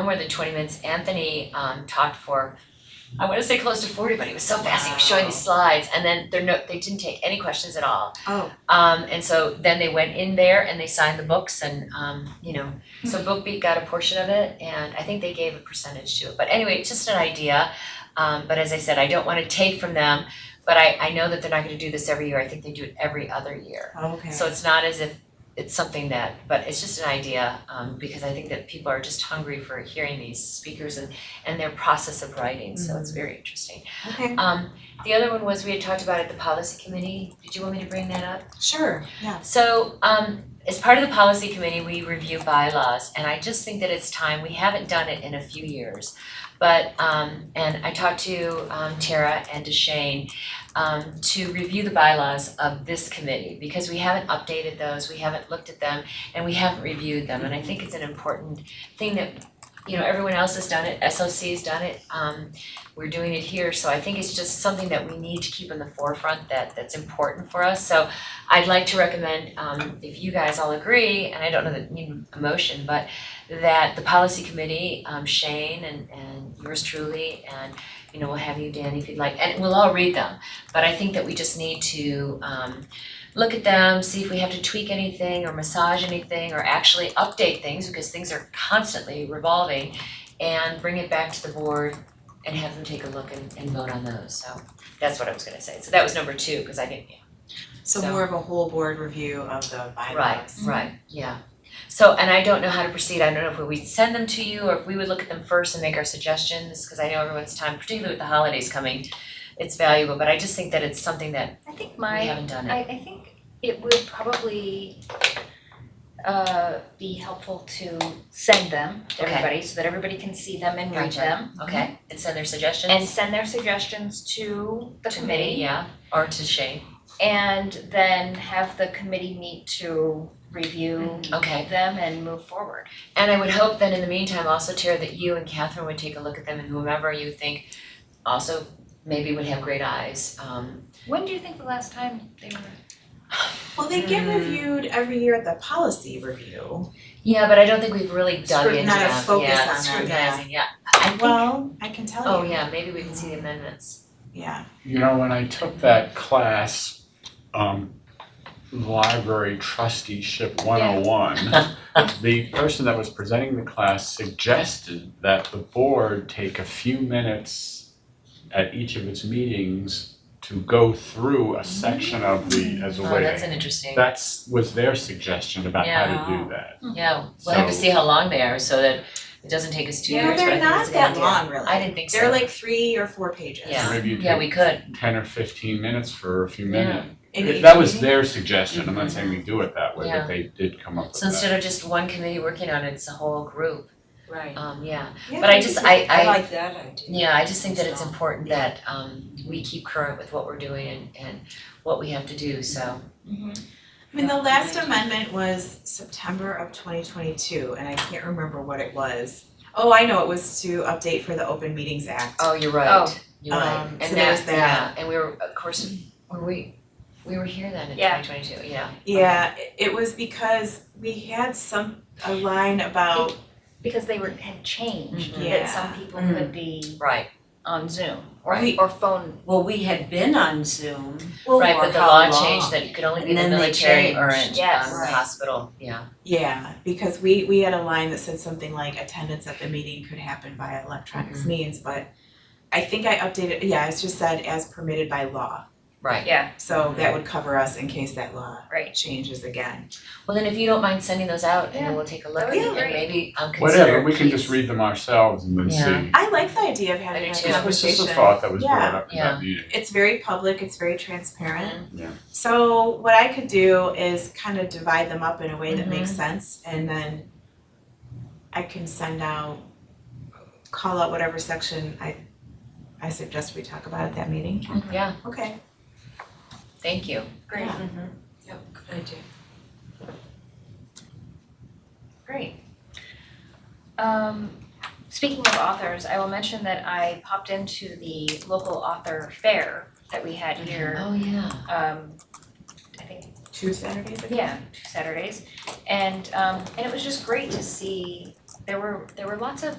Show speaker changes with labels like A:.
A: No more than twenty minutes. Anthony um talked for, I wanna say close to forty, but he was so fast, he was showing these slides and then there no, they didn't take any questions at all.
B: Oh.
A: Um and so then they went in there and they signed the books and um, you know, so Book Beat got a portion of it and I think they gave a percentage to it. But anyway, it's just an idea. Um but as I said, I don't wanna take from them, but I I know that they're not gonna do this every year. I think they do it every other year.
B: Okay.
A: So it's not as if it's something that, but it's just an idea, um, because I think that people are just hungry for hearing these speakers and, and their process of writing, so it's very interesting.
B: Okay,
A: Um, the other one was, we had talked about at the policy committee, did you want me to bring that up?
B: sure, yeah.
A: So, um, as part of the policy committee, we review bylaws, and I just think that it's time, we haven't done it in a few years. But, um, and I talked to, um, Tara and to Shane, um, to review the bylaws of this committee, because we haven't updated those, we haven't looked at them, and we haven't reviewed them, and I think it's an important thing that, you know, everyone else has done it, SOC's done it, um, we're doing it here, so I think it's just something that we need to keep in the forefront that, that's important for us, so I'd like to recommend, um, if you guys all agree, and I don't know that you need a motion, but that the policy committee, um, Shane and, and yours truly, and, you know, we'll have you, Danny, if you'd like, and we'll all read them. But I think that we just need to, um, look at them, see if we have to tweak anything or massage anything or actually update things, because things are constantly revolving, and bring it back to the board and have them take a look and, and vote on those, so that's what I was gonna say. So that was number two, because I didn't,
B: So
A: So-
B: more of a whole board review of the bylaws.
A: Right, right, yeah. So, and I don't know how to proceed, I don't know if we'd send them to you or if we would look at them first and make our suggestions, cause I know everyone's time, particularly with the holidays coming, it's valuable, but I just think that it's something that
C: I think
A: we
C: my,
A: haven't done it.
C: I, I think it would probably uh, be helpful to send them to
A: Okay.
C: everybody so that everybody can see them and read
A: Gotcha.
C: them.
A: Okay, and send their suggestions?
C: And send their suggestions to the
A: To me,
C: committee
A: yeah, or to Shane,
C: and then have the committee meet to review
A: okay.
C: them and move forward.
A: And I would hope then in the meantime also, Tara, that you and Catherine would take a look at them and whomever you think also maybe would have great eyes, um,
C: When do you think the last time they were?
B: Well, they get
A: Mm.
B: reviewed every year at the policy review.
A: yeah, but I don't think we've really dug into them,
B: Scrutinize,
A: yeah,
B: focus on them, yeah.
A: scrutinizing, yeah. I think-
B: Well, I can tell you.
A: Oh, yeah, maybe we can see the amendments.
B: Yeah.
D: You know, when I took that class, um, library trusteeship one oh one, the person that was presenting the class suggested that the board take a few minutes at each of its meetings to go through a section of the, as a
A: Oh,
D: way.
A: that's an interesting,
D: That's, was their suggestion about how to
B: Yeah.
D: do that.
A: yeah, we'll have to
D: So-
A: see how long they are so that it doesn't take us two
B: No,
A: years, but I
B: they're
A: think it's
B: not
A: a good
B: that
A: idea.
B: long, really.
A: I didn't think so.
B: They're like three or four pages.
A: Yeah.
D: Maybe you
A: Yeah, we
D: take
A: could,
D: ten or fifteen minutes for a few
A: Yeah.
D: minutes.
B: In each
D: That was
B: meeting.
D: their suggestion, I'm not saying we do it that way,
A: Mm-hmm. Yeah.
D: but they did come up with that.
A: so instead of just one committee working on it, it's a whole group,
E: Right.
A: um, yeah,
B: Yeah,
A: but I just, I I
E: like that idea.
A: Yeah, I just think that it's important that um we keep current with what we're doing and and what we have to do, so.
B: I mean, the last amendment was September of twenty twenty-two, and I can't remember what it was. Oh, I know, it was to update for the Open Meetings Act.
A: Oh, you're right.
C: Oh.
A: You're right.
B: Um, so
A: And
B: there's
A: that,
B: that.
A: yeah, and we were, of course, were we, we were here then in
C: Yeah.
A: twenty twenty two, yeah.
B: Yeah, it- it was because we had some, a line about,
C: Because they were, had changed,
A: Mm-hmm.
B: Mhm.
C: that
B: Yeah.
C: some people
E: Mm.
C: could be
A: Right,
C: on Zoom
A: right,
C: or phone.
E: Well, we had been on Zoom.
B: well,
A: right, but the
E: how
A: law
E: long?
A: changed that you could only be in
E: And
A: the
E: then they
A: military or in um
E: changed,
A: the
C: yes.
E: Right.
A: hospital, yeah.
B: Yeah, because we we had a line that said something like attendance at the meeting could happen via
D: Mm-hmm.
B: electronics means, but I think I updated, yeah, it's just said as permitted by law.
A: Right.
C: Yeah.
D: Mm-hmm.
B: So that would cover us in case that law
C: Right.
B: changes again.
A: Well, then if you don't mind sending those out and
C: Yeah.
A: then we'll take a look
E: Oh,
C: That
A: at it
C: would be
A: and
C: great.
A: maybe um consider
D: Whatever, we can just
A: please.
D: read them ourselves and then
A: Yeah.
D: see.
B: I like the idea of having
A: I do
B: a
A: too.
D: This was just
B: conversation.
D: a thought that was
B: Yeah.
D: brought up in that meeting.
B: It's very public, it's very transparent.
D: Yeah.
B: So what I could do is kind of divide them up in a way that
A: Mhm.
B: makes sense and then I can send out, call out whatever section I I suggest we talk about at that meeting.
A: Yeah,
B: Okay.
A: thank you.
C: Great.
B: Yeah.
E: Good idea.
C: Great. Um, speaking of authors, I will mention that I popped into the local author fair that we had here,
A: Oh, yeah.
C: um, I think,
B: Two Saturdays ago?
C: yeah, two Saturdays. And, um, and it was just great to see there were, there were lots of